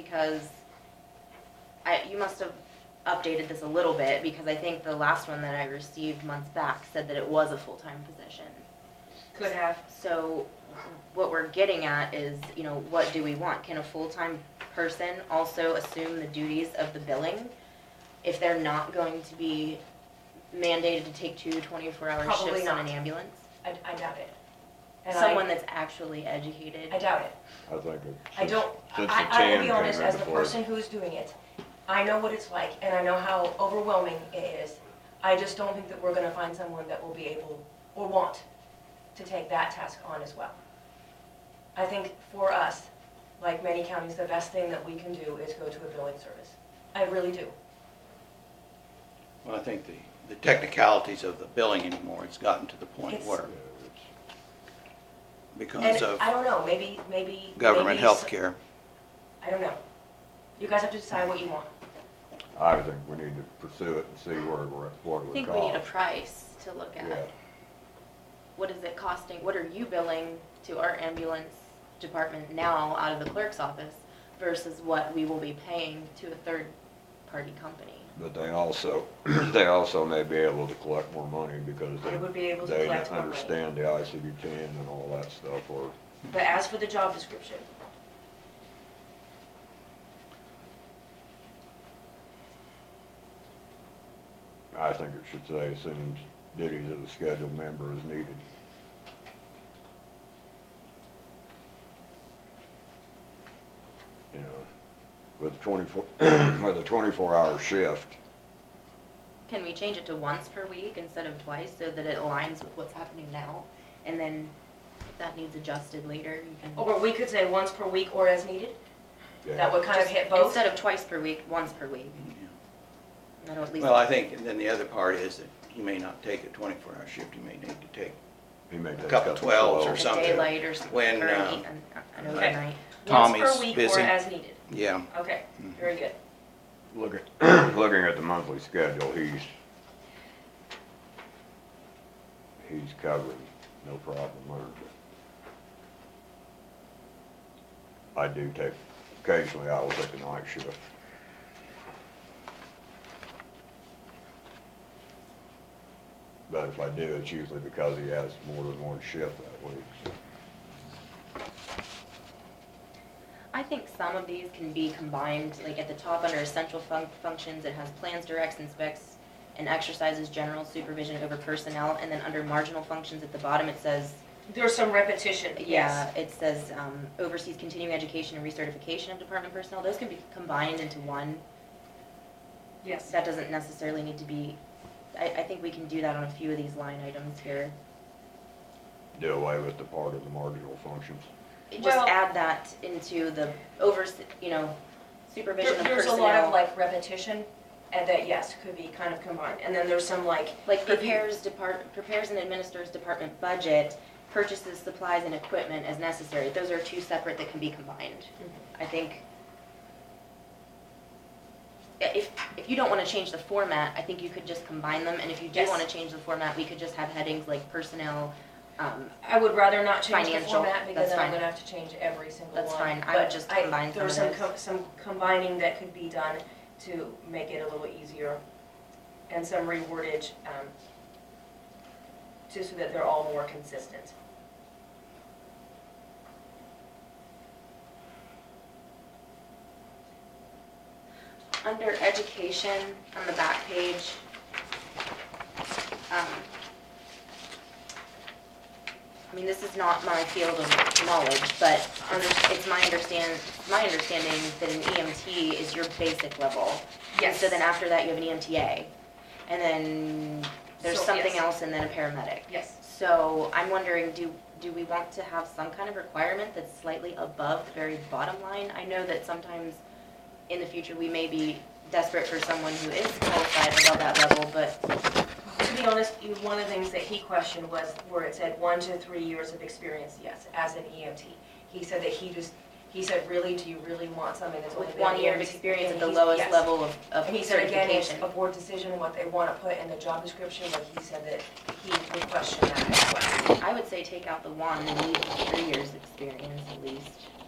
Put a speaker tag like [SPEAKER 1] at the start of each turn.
[SPEAKER 1] because I, you must have updated this a little bit, because I think the last one that I received months back said that it was a full-time position.
[SPEAKER 2] Could have.
[SPEAKER 1] So what we're getting at is, you know, what do we want? Can a full-time person also assume the duties of the billing if they're not going to be mandated to take two 24-hour
[SPEAKER 2] Probably
[SPEAKER 1] shifts on an
[SPEAKER 2] not.
[SPEAKER 1] ambulance?
[SPEAKER 2] I, I doubt it. And
[SPEAKER 1] Someone
[SPEAKER 2] I,
[SPEAKER 1] that's actually educated?
[SPEAKER 2] I doubt it.
[SPEAKER 3] I think it.
[SPEAKER 2] I don't,
[SPEAKER 3] since the
[SPEAKER 2] I, I will
[SPEAKER 3] tan
[SPEAKER 2] be honest,
[SPEAKER 3] came in
[SPEAKER 2] as the
[SPEAKER 3] before.
[SPEAKER 2] person who's doing it, I know what it's like and I know how overwhelming it is. I just don't think that we're gonna find someone that will be able or want to take that task on as well. I think for us, like many counties, the best thing that we can do is go to a billing service. I really do.
[SPEAKER 4] Well, I think the, the technicalities of the billing anymore, it's gotten to the point
[SPEAKER 2] It's-
[SPEAKER 4] where, because
[SPEAKER 2] And
[SPEAKER 4] of
[SPEAKER 2] I don't know, maybe, maybe.
[SPEAKER 4] government
[SPEAKER 2] maybe-
[SPEAKER 4] health care.
[SPEAKER 2] I don't know. You guys have to decide what you want.
[SPEAKER 3] I think we need to pursue it and see where, we're at, what it
[SPEAKER 1] I
[SPEAKER 3] would
[SPEAKER 1] think
[SPEAKER 3] cost.
[SPEAKER 1] we need a price to look
[SPEAKER 3] Yeah.
[SPEAKER 1] at. What is it costing, what are you billing to our ambulance department now out of the clerk's office versus what we will be paying to a third-party company?
[SPEAKER 3] But they also, they also may be able to collect more money because
[SPEAKER 2] They would be
[SPEAKER 3] they,
[SPEAKER 2] able to
[SPEAKER 3] they
[SPEAKER 2] collect more money.
[SPEAKER 3] understand the ICD ten and all that stuff, or,
[SPEAKER 2] But as for the job description,
[SPEAKER 3] I think it should say assumes duties of the scheduled member is needed. You know, with twenty-four, with a twenty-four hour shift,
[SPEAKER 1] Can we change it to once per week instead of twice so that it aligns with what's happening now? And then if that needs adjusted later, you can.
[SPEAKER 2] or we could say once per week or as needed, that would kind of hit both.
[SPEAKER 1] Instead of twice per week, once per week. That'll at least.
[SPEAKER 4] Well, I think, and then the other part is that you may not take a twenty-four hour shift, you may need to take,
[SPEAKER 3] He may take
[SPEAKER 4] A couple twelves or
[SPEAKER 1] a
[SPEAKER 3] twelves.
[SPEAKER 4] something.
[SPEAKER 1] Daylight or something,
[SPEAKER 4] When,
[SPEAKER 1] or
[SPEAKER 4] uh,
[SPEAKER 1] an, an overnight.
[SPEAKER 4] Tommy's
[SPEAKER 2] Once per week or
[SPEAKER 4] busy.
[SPEAKER 2] as needed.
[SPEAKER 4] yeah.
[SPEAKER 2] Okay, very good.
[SPEAKER 3] Look at, looking at the monthly schedule, he's, he's covered, no problem there. I do take, occasionally I will take a night shift. But if I do, it's usually because he has more than one shift that week, so.
[SPEAKER 1] I think some of these can be combined, like at the top under essential fun- functions, it has plans, directs, and specs, and exercises general supervision over personnel, and then under marginal functions at the bottom, it says,
[SPEAKER 2] There's some repetition,
[SPEAKER 1] yeah,
[SPEAKER 2] yes.
[SPEAKER 1] it says um, oversees continuing education and recertification of department personnel, those can be combined into one.
[SPEAKER 2] Yes.
[SPEAKER 1] That doesn't necessarily need to be, I, I think we can do that on a few of these line items here.
[SPEAKER 3] Do away with the part of the marginal functions.
[SPEAKER 1] Just
[SPEAKER 2] Well-
[SPEAKER 1] add that into the overse, you know, supervision
[SPEAKER 2] There-
[SPEAKER 1] of
[SPEAKER 2] There's a lot of
[SPEAKER 1] personnel.
[SPEAKER 2] like repetition, and that, yes, could be kind of combined. And then there's some like.
[SPEAKER 1] Like prepares depart, prepares and administers department budget, purchases supplies and equipment as necessary. Those are two separate that can be combined.
[SPEAKER 2] Mhm.
[SPEAKER 1] I think. i- If, if you don't wanna change the format, I think you could just combine them, and if you do
[SPEAKER 2] Yes.
[SPEAKER 1] wanna change the format, we could just have headings like personnel, um,
[SPEAKER 2] I would rather not change the
[SPEAKER 1] Financial,
[SPEAKER 2] format because
[SPEAKER 1] that's
[SPEAKER 2] then I'm
[SPEAKER 1] fine.
[SPEAKER 2] gonna have to change every single one.
[SPEAKER 1] That's fine. I would
[SPEAKER 2] But
[SPEAKER 1] just combine some
[SPEAKER 2] There's
[SPEAKER 1] of
[SPEAKER 2] some,
[SPEAKER 1] those.
[SPEAKER 2] com- some combining that could be done to make it a little easier and some rewordage, um, just so that they're all more consistent.
[SPEAKER 1] Under education, on the back page, um, I mean, this is not my field of knowledge, but under- it's my understand, my understanding that an EMT is your basic level. And So then after that, you have an E EMTA, and then there's
[SPEAKER 2] So,
[SPEAKER 1] something
[SPEAKER 2] yes.
[SPEAKER 1] else, and then a paramedic.
[SPEAKER 2] Yes.
[SPEAKER 1] So I'm wondering, do, do we want to have some kind of requirement that's slightly above the very bottom line? I know that sometimes in the future, we may be desperate for someone who is qualified above that level, but
[SPEAKER 2] To be honest, you- one of the things that he questioned was where it said one to three years of experience, yes, as an EMT. He said that he just, he said, really, do you really want something that's only
[SPEAKER 1] with
[SPEAKER 2] been
[SPEAKER 1] one year of
[SPEAKER 2] EMT?
[SPEAKER 1] experience at
[SPEAKER 2] And
[SPEAKER 1] the
[SPEAKER 2] he-
[SPEAKER 1] lowest
[SPEAKER 2] yes.
[SPEAKER 1] level of, of
[SPEAKER 2] And he said, again, it's
[SPEAKER 1] certification.
[SPEAKER 2] a board decision, what they want to put in the job description, but he said that he would question that as well.
[SPEAKER 1] I would say take out the one and leave three years' experience at least.